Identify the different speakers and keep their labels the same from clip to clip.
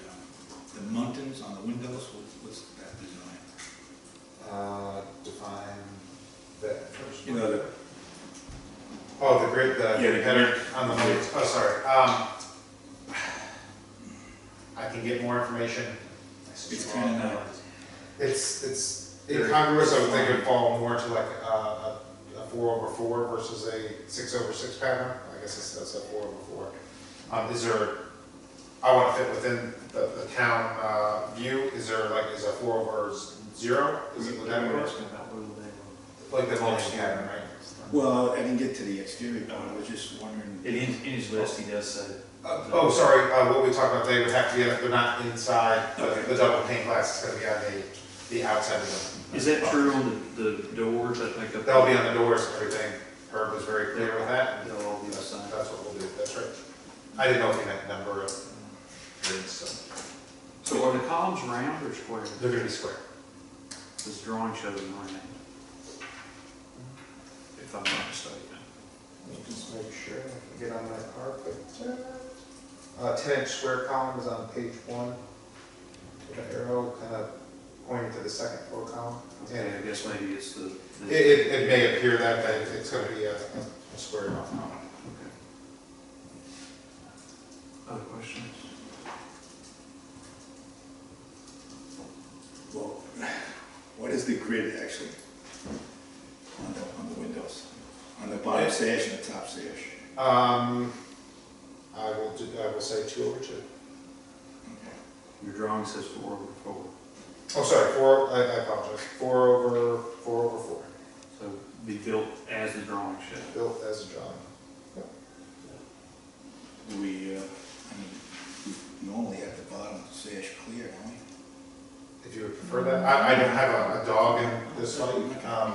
Speaker 1: uh, Oh,
Speaker 2: get it.
Speaker 1: Heather, on the, lights. oh, sorry, um, I can get more information.
Speaker 2: It's kinda not-
Speaker 1: It's, it's incongruous, I would think it'd fall more to like, uh, a, a four over four versus a six over six pattern, I guess it's, that's a four over four. Um, is there, I wanna fit within the, the town, uh, view, is there like, is a four over zero, is it, would that work? Like the mulch pattern, right?
Speaker 3: Well, I didn't get to the exterior part, I was just wondering.
Speaker 2: In his, in his list, he does say.
Speaker 1: Uh, Oh, sorry, uh, what we talked about, they would have to be, they're not inside, but the double pane glass is gonna be on the, the outside of them.
Speaker 2: Is that true on the, the doors that make up?
Speaker 1: That'll be on the doors and everything, Herb was very clear with that,
Speaker 2: They'll all be
Speaker 1: that's,
Speaker 2: assigned.
Speaker 1: that's what we'll do, that's right. I didn't know if you meant number of rooms, so,
Speaker 4: So are the columns round or square?
Speaker 1: they're gonna be square.
Speaker 4: This drawing shows them round. If I'm not mistaken.
Speaker 1: Just make sure I can get on that carpet. Uh, ten inch square column is on page one, with an arrow kind of pointing to the second floor column. And
Speaker 4: Okay, I guess maybe it's the.
Speaker 1: It,
Speaker 4: the-
Speaker 1: it, it may appear that, that it's gonna be a, a square off now.
Speaker 4: Other questions?
Speaker 3: Well, what is the grid actually? On the, on the windows, on the bottom sash and the top sash?
Speaker 1: Um, I will, do- I will say two over two.
Speaker 4: Your drawing says four over four,
Speaker 1: Oh, sorry, four, I, I apologize, four over, four over four,
Speaker 4: so be built as the drawing shows.
Speaker 1: built as a drawing.
Speaker 3: Do we, uh, I mean, we normally have the bottom sash clear, don't we?
Speaker 1: If you would prefer that, I, I don't have a, a dog in this fight, um,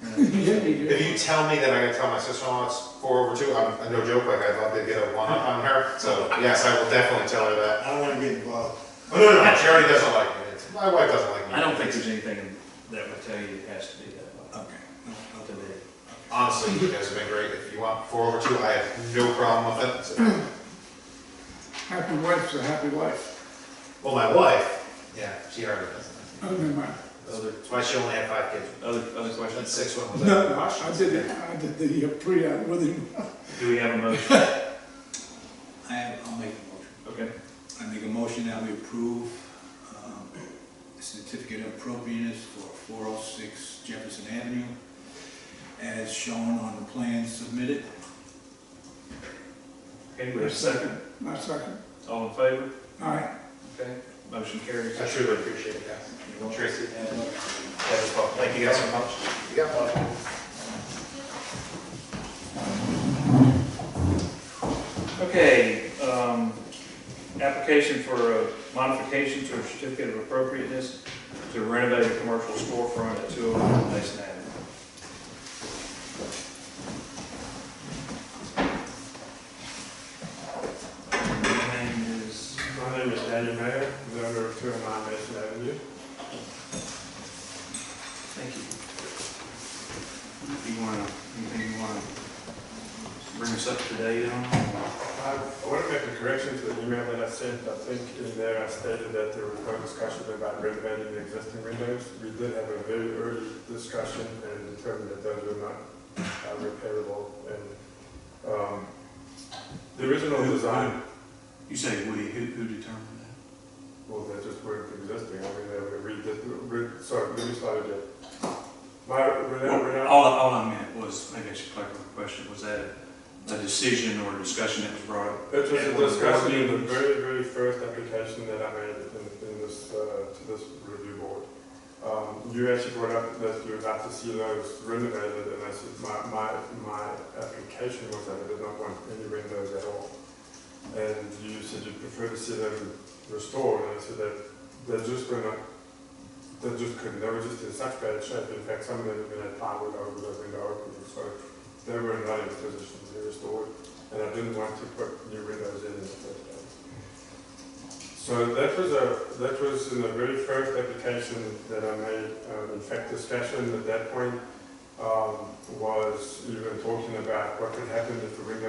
Speaker 1: if you tell me that I gotta tell my sister-in-law it's four over two, I'm, no joke, like, I'd love to get a one up on her, so, yes, I will definitely tell her that.
Speaker 3: I don't wanna get involved.
Speaker 1: Oh, no, no, no, she already doesn't like me, It's- my wife doesn't like me.
Speaker 2: I don't think there's anything that would tell you it has to be that way.
Speaker 3: Okay.
Speaker 2: Not to me.
Speaker 1: Honestly, you guys have been great. If you want four over two, I have no problem with it.
Speaker 5: Happy wife's a happy wife.
Speaker 1: Well, my wife, yeah, she already does.
Speaker 5: Oh, never mind.
Speaker 1: That's why she only had five kids.
Speaker 2: Other, other
Speaker 1: And
Speaker 2: questions?
Speaker 1: six one was
Speaker 5: No,
Speaker 1: out.
Speaker 5: no, I I did, it. I did the uh, pre-app with him.
Speaker 2: Do we have a motion?
Speaker 3: I have, I'll make a motion.
Speaker 2: Okay.
Speaker 3: I make a motion that we approve um, the certificate of appropriateness for 406 Jefferson Avenue as shown on the plan submitted.
Speaker 2: Okay, we have a second.
Speaker 5: My second.
Speaker 2: All in favor?
Speaker 5: All right.
Speaker 2: Okay. Motion carries.
Speaker 1: I truly appreciate it, guys. Tracy,
Speaker 3: And
Speaker 1: that was fun. Thank you guys so much. You got one.
Speaker 2: Okay, um, application for a modification to a certificate of appropriateness to renovate a commercial storefront at two oh one Mason Avenue. My name is,
Speaker 6: My name is Daniel Mayer, member of 209 Mason Avenue.
Speaker 4: Thank you. If you wanna, anything you wanna bring us up to date on?
Speaker 6: I want to make a correction to the email that I sent. I think in there I stated that there was no discussion about renovating the existing windows. We did have a very early discussion and determined that those were not uh, repairable. And um, the original design,
Speaker 4: You say we, who, who determined that?
Speaker 6: well, they just weren't existing. I mean, they were redid, re- sorry, let me start again. My, we're now- we're now-
Speaker 4: All, all I meant was, maybe I should clarify the question, was that a decision or a discussion that was brought up
Speaker 6: It was
Speaker 4: Yeah,
Speaker 6: a
Speaker 4: well,
Speaker 6: discussion in the
Speaker 4: board
Speaker 6: very, very first application that I made in, in this, uh, to this review board. Um, you actually brought up that you would like to see those renovated, and I said, my, my, my application was that I did not want any windows at all. And you said you'd prefer to see them restored, and I said that they just were not, they just couldn't, they were just in such bad shape, in fact, some of them even had plywood over the window openings, so they were not in a position to be restored and I didn't want to put new windows in in the first place. So that was a, that was in the very first application that I made, um, in fact, discussion at that point, um, was even talking about what could happen if the windows